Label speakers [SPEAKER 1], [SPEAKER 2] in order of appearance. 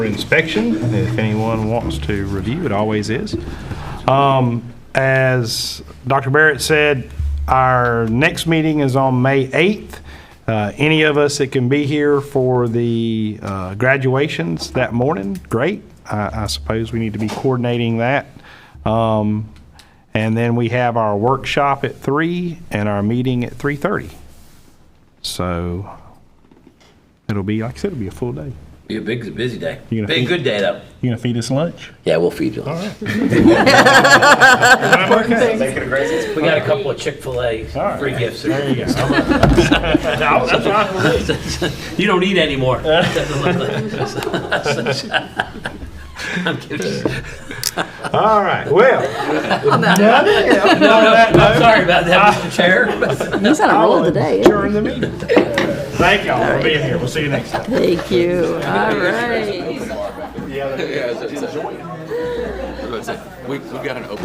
[SPEAKER 1] for inspection, if anyone wants to review, it always is. Um, As Dr. Barrett said, our next meeting is on May 8th. Uh, Any of us that can be here for the uh, graduations that morning, great. I I suppose we need to be coordinating that. Um, And then we have our workshop at three and our meeting at 3:30. So it'll be, like I said, it'll be a full day.
[SPEAKER 2] Be a big, busy day.
[SPEAKER 1] You
[SPEAKER 2] Be
[SPEAKER 1] gonna
[SPEAKER 2] a
[SPEAKER 1] feed-
[SPEAKER 2] good day though.
[SPEAKER 1] You gonna feed us lunch?
[SPEAKER 2] Yeah, we'll feed you. We got a couple of Chick-fil-A
[SPEAKER 1] right.
[SPEAKER 2] free gifts.
[SPEAKER 1] There you go.
[SPEAKER 2] You don't need any more. I'm kidding.
[SPEAKER 1] All right, well. nothing else.
[SPEAKER 2] No, no, I'm sorry about that, Mr. Chair.
[SPEAKER 3] He's on a
[SPEAKER 1] I
[SPEAKER 3] roll
[SPEAKER 1] will
[SPEAKER 3] today.
[SPEAKER 1] adjourn the meeting. Thank y'all for being here. We'll see you next time.
[SPEAKER 3] Thank you. All right.
[SPEAKER 4] Yeah, that's it. We, we've got an open.